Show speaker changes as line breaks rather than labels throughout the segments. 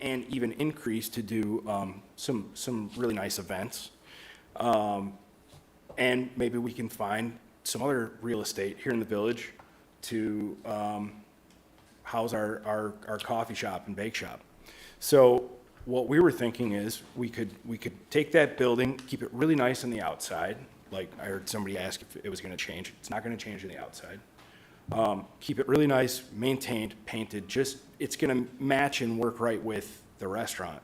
and even increase to do um, some, some really nice events. Um, And maybe we can find some other real estate here in the village to um, house our, our, our coffee shop and bake shop. So what we were thinking is, we could, we could take that building, keep it really nice on the outside, like I heard somebody ask if it was gonna change, it's not gonna change on the outside. Um, Keep it really nice, maintained, painted, just, it's gonna match and work right with the restaurant.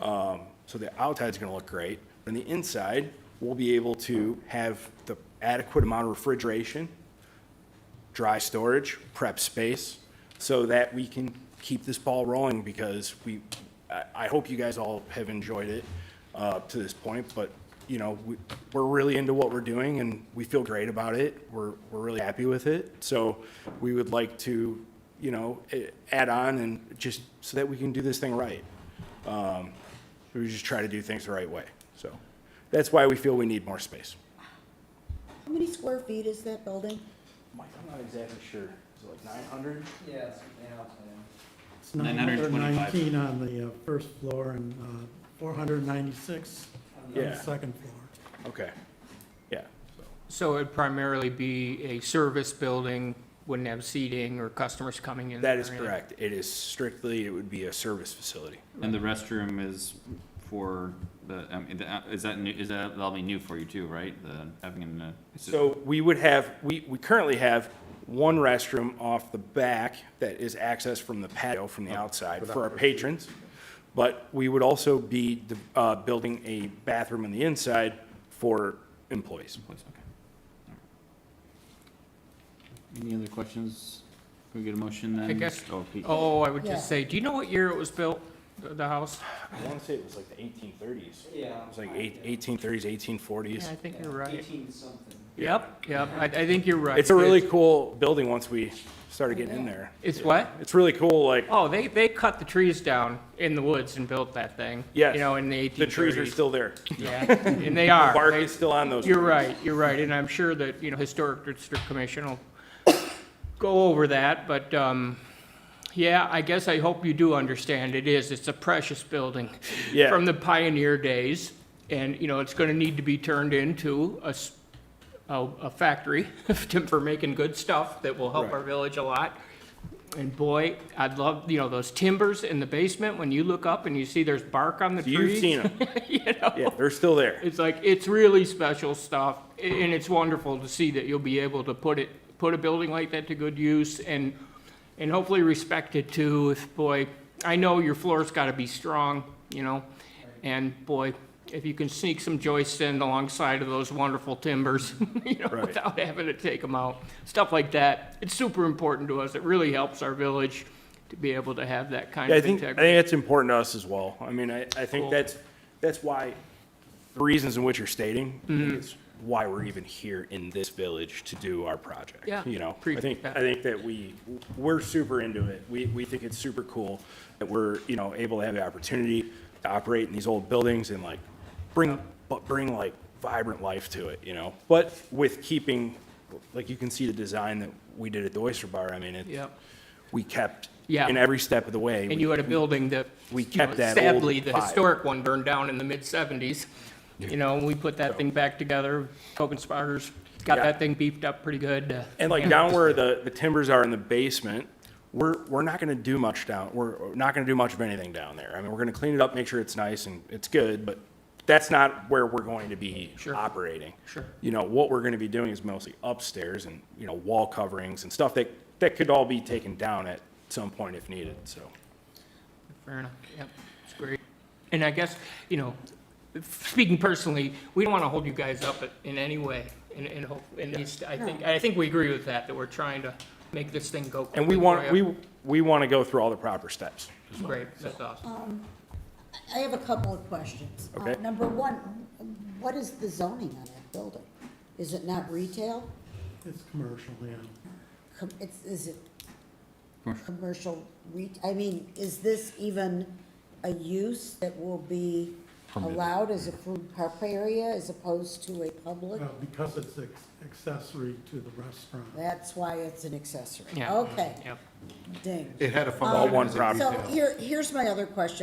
Um, So the outside's gonna look great. On the inside, we'll be able to have the adequate amount of refrigeration, dry storage, prep space, so that we can keep this ball rolling because we, I, I hope you guys all have enjoyed it uh, to this point, but, you know, we, we're really into what we're doing and we feel great about it. We're, we're really happy with it. So we would like to, you know, eh, add on and just, so that we can do this thing right. Um, We just try to do things the right way. So that's why we feel we need more space.
How many square feet is that building?
Mike, I'm not exactly sure. Is it like 900?
Yeah, it's now, yeah.
It's 919
925.
on the uh, first floor and uh, 496 on the
Yeah.
second floor.
Okay. Yeah. So.
So it'd primarily be a service building, wouldn't have seating or customers coming in?
That is
or anything?
correct. It is strictly, it would be a service facility.
And the restroom is for the, I mean, the- is that, new- is that, that'll be new for you too, right? The, having an, uh, it's just-
So we would have, we, we currently have one restroom off the back that is accessed from the patio from
Oh,
the outside for our patrons. But we would also be, uh, building a bathroom on the inside for employees.
place, okay. All right. Any other questions? Can we get a motion then?
I guess-
Oh, Pete.
Oh, I would
Yeah.
just say, do you know what year it was built, the the house?
I want to say it was like the eighteen thirties.
Yeah.
It was like eight, eighteen thirties, eighteen forties.
Yeah, I think you're right.
Eighteen something.
Yep, yep, I, I think you're right.
It's a really cool building once we started getting in there.
It's what?
It's really cool, like,
Oh, they, they cut the trees down in the woods and built that thing.
Yes.
You know, in the eighteen
the
thirties.
trees are still there.
Yeah, and they are.
Bark
They-
is still on those.
You're
trees.
right, you're right, and I'm sure that, you know, Historic District Commission will go over that, but, um, yeah, I guess I hope you do understand, it is, it's a precious building.
Yeah.
From the pioneer days, and, you know, it's gonna need to be turned into a, s- a- a factory to- for making good stuff that will help our
Right.
village a lot. And boy, I'd love, you know, those timbers in the basement, when you look up and you see there's bark on the trees.
You've seen them.
You know?
Yeah, they're still there.
It's like, it's really special stuff, a- and it's wonderful to see that you'll be able to put it, put a building like that to good use and, and hopefully respect it too. If, boy, I know your floor's gotta be strong, you know? And boy, if you can sneak some joists in alongside of those wonderful timbers, you know,
Right.
without having to take them out, stuff like that. It's super important to us. It really helps our village to be able to have that kind
Yeah, I
of
think, I
integrity.
think that's important to us as well. I mean, I, I think
Cool.
that's, that's why, the reasons in which you're stating
Mm-hmm.
is why we're even here in this village to do our project.
Yeah,
You know, I
appreciate
think,
that.
I think that we, we're super into it. We, we think it's super cool that we're, you know, able to have the opportunity to operate in these old buildings and like bring, but bring like vibrant life to it, you know? But with keeping, like you can see the design that we did at the Oyster Bar, I mean, it.
Yep.
We kept.
Yeah.
In every step of the way. we
And you had a building that.
We
you know,
kept that old
Sadly, the
vibe.
historic one burned down in the mid-seventies. You know, and we put that thing back together. Coke and Spiders got
Yeah.
that thing beefed up pretty good. uh,
And like down where the, the timbers are in the basement, we're, we're not gonna do much down, we're not gonna do much of anything down there. I mean, we're gonna clean it up, make sure it's nice and it's good, but that's not where we're going to be
Sure.
operating.
Sure.
You know, what we're gonna be doing is mostly upstairs and, you know, wall coverings and stuff that, that could all be taken down at some point if needed, so.
Fair enough, yep, it's great. And I guess, you know, speaking personally, we don't want to hold you guys up in any way. And, and hope, and these- I think, I think we agree with that, that we're trying to make this thing go.
And we
quickly
want,
for
we,
you.
we wanna go through all the proper steps.
Great, that's awesome.
I have a couple of questions. Uh,
Okay.
Number one, what is the zoning on that building? Is it not retail?
It's commercial, yeah.
Com- It's, is it
Commercial.
commercial re, I mean, is this even a use that will be allowed as a food prep area as opposed to a public?
Well, because it's ex- accessory to the restaurant.
That's why it's an accessory.
Yeah.
Okay,
Yep.
ding.
It had a function.
All one
as a
property.
So here, here's my other question.